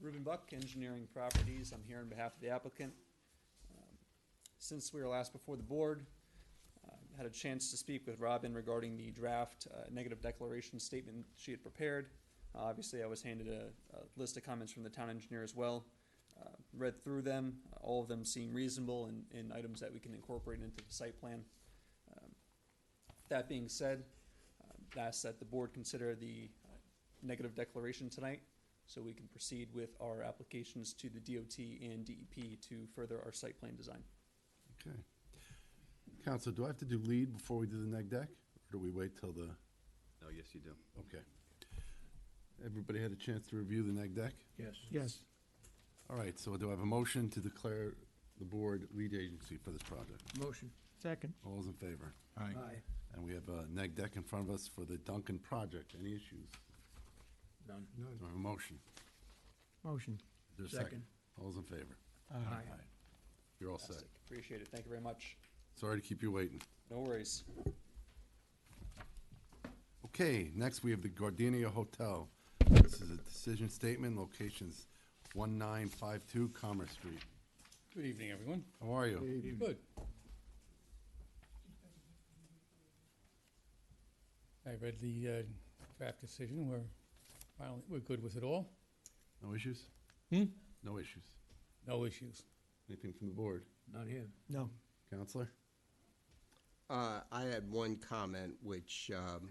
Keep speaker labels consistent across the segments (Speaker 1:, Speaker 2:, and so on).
Speaker 1: Ruben uh, Buck, Engineering Properties. I'm here on behalf of the applicant. Um, Since we were last before the board, uh, had a chance to speak with Robin regarding the draft uh, negative declaration statement she had prepared. Uh, Obviously, I was handed a, a list of comments from the town engineer as well. Uh, Read through them, all of them seem reasonable and, and items that we can incorporate into the site plan. Um, That being said, um, I ask that the board consider the uh, negative declaration tonight so we can proceed with our applications to the DOT and DEP to further our site plan design.
Speaker 2: Okay. Counsel, do I have to do lead before we do the neg deck? Or do we wait till the,
Speaker 3: Oh, yes, you do.
Speaker 2: okay. Everybody had a chance to review the neg deck?
Speaker 4: Yes.
Speaker 5: Yes.
Speaker 2: All right, so do I have a motion to declare the board lead agency for this project?
Speaker 4: Motion.
Speaker 5: Second.
Speaker 2: All those in favor?
Speaker 4: Aye.
Speaker 2: And we have a neg deck in front of us for the Duncan project. Any issues?
Speaker 4: None.
Speaker 2: Do I have a motion?
Speaker 5: Motion.
Speaker 2: Is there a
Speaker 4: Second.
Speaker 2: All those in favor?
Speaker 4: Aye.
Speaker 2: You're all set.
Speaker 1: Fantastic. Appreciate it. Thank you very much.
Speaker 2: Sorry to keep you waiting.
Speaker 1: No worries.
Speaker 2: Okay, next we have the Gardenia Hotel. This is a decision statement, locations 1952 Commerce Street.
Speaker 6: Good evening, everyone.
Speaker 2: How are you?
Speaker 6: Good. I read the uh, draft decision. We're finally, we're good with it all.
Speaker 2: No issues?
Speaker 6: Hmm?
Speaker 2: No issues.
Speaker 6: No issues.
Speaker 2: Anything from the board?
Speaker 4: Not here.
Speaker 5: No.
Speaker 2: Counselor?
Speaker 3: Uh, I had one comment, which, um,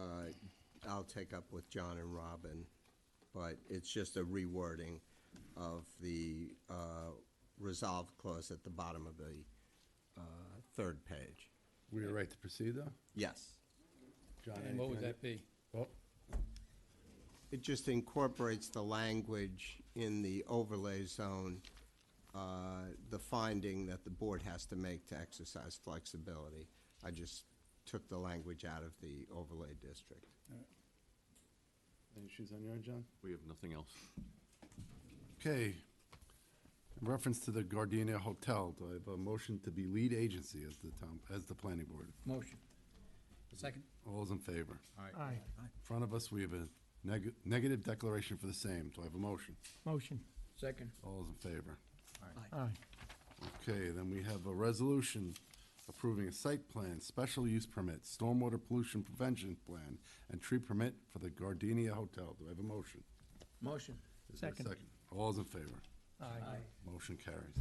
Speaker 3: uh, I'll take up with John and Robin, but it's just a rewording of the, uh, resolve clause at the bottom of the, uh, third page.
Speaker 2: We are right to proceed, though?
Speaker 3: Yes.
Speaker 2: John,
Speaker 6: And what would
Speaker 2: anything?
Speaker 6: that be?
Speaker 2: Oh,
Speaker 3: It just incorporates the language in the overlay zone, uh, the finding that the board has to make to exercise flexibility. I just took the language out of the overlay district.
Speaker 2: Any issues on your end, John?
Speaker 7: We have nothing else.
Speaker 2: Okay. In reference to the Gardenia Hotel, do I have a motion to be lead agency as the town, as the planning board?
Speaker 4: Motion. Second.
Speaker 2: All those in favor?
Speaker 5: Aye.
Speaker 2: In front of us, we have a neg- negative declaration for the same. Do I have a motion?
Speaker 5: Motion.
Speaker 4: Second.
Speaker 2: All those in favor?
Speaker 5: Aye.
Speaker 2: Okay, then we have a resolution approving a site plan, special use permit, stormwater pollution prevention plan, and tree permit for the Gardenia Hotel. Do I have a motion?
Speaker 4: Motion.
Speaker 2: Is there a
Speaker 5: Second.
Speaker 2: All those in favor?
Speaker 5: Aye.
Speaker 2: Motion carries.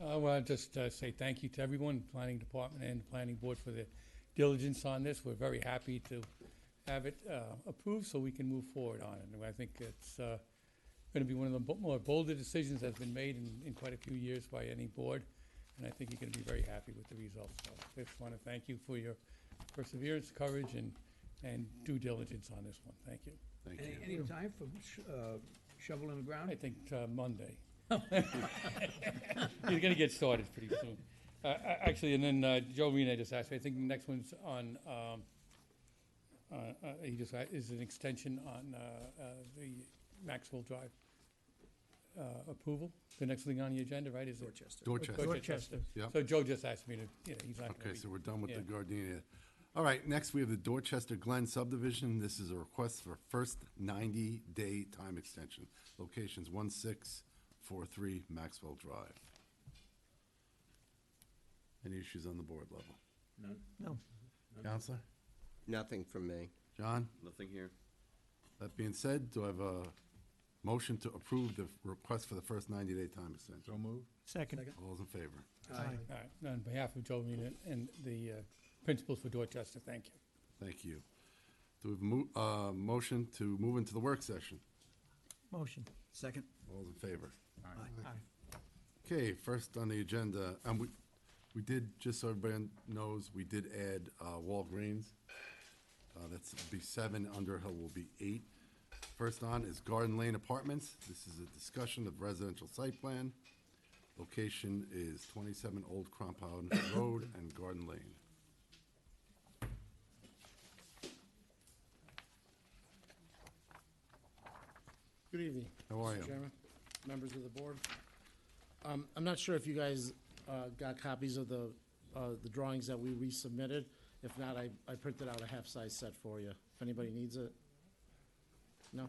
Speaker 6: I want to just uh, say thank you to everyone, Planning Department and the Planning Board for their diligence on this. We're very happy to have it uh, approved so we can move forward on it. And I think it's going to be one of the bo- more bolder decisions that's been made in in quite a few years by any board. And I think you're going to be very happy with the results. So I just want to thank you for your perseverance, courage, and, and due diligence on this one. Thank you.
Speaker 2: Thank
Speaker 4: Any,
Speaker 2: you.
Speaker 4: any time for sh- uh, shovel in the
Speaker 6: I
Speaker 4: ground?
Speaker 6: think uh, Monday. You're gonna get started pretty soon. Uh, a- Actually, and then uh, Joe Rena just asked, me. I think the next one's on, um, uh, uh, he just, a- is an extension on uh, uh, the Maxwell Drive uh, approval. The next thing on the agenda, right, is it?
Speaker 4: Dorchester.
Speaker 2: Dorchester.
Speaker 6: Dorchester.
Speaker 2: Yep.
Speaker 6: So Joe just asked me to, you know, he's not gonna
Speaker 2: Okay,
Speaker 6: be-
Speaker 2: so we're done with the
Speaker 6: Yeah.
Speaker 2: Gardenia. All right, next we have the Dorchester Glen subdivision. This is a request for first 90-day time extension. Locations 1643 Maxwell Drive. Any issues on the board level?
Speaker 4: None.
Speaker 5: No.
Speaker 2: Counselor?
Speaker 3: Nothing from me.
Speaker 2: John?
Speaker 7: Nothing here.
Speaker 2: That being said, do I have a motion to approve the request for the first 90-day time extension?
Speaker 4: moved.
Speaker 5: Second.
Speaker 2: All those in favor?
Speaker 4: Aye.
Speaker 6: All right, on behalf of Joe Rena and the uh, principals for Dorchester, thank you.
Speaker 2: Thank you. Do we have mo- uh, motion to move into the work session?
Speaker 5: Motion.
Speaker 4: Second.
Speaker 2: All those in favor?
Speaker 4: Aye.
Speaker 5: Aye.
Speaker 2: Okay, first on the agenda, and we, we did, just so everybody knows, we did add uh, Walgreens. Uh, That's be seven, Underhill will be eight. First on is Garden Lane Apartments. This is a discussion of residential site plan. Location is 27 Old Crampon Road and Garden Lane.
Speaker 8: Good evening.
Speaker 2: How are
Speaker 8: Mr.
Speaker 2: you?
Speaker 8: Chairman, members of the board. Um, I'm not sure if you guys uh, got copies of the, uh, the drawings that we resubmitted. If not, I, I printed out a half-size set for you, if anybody needs it. No?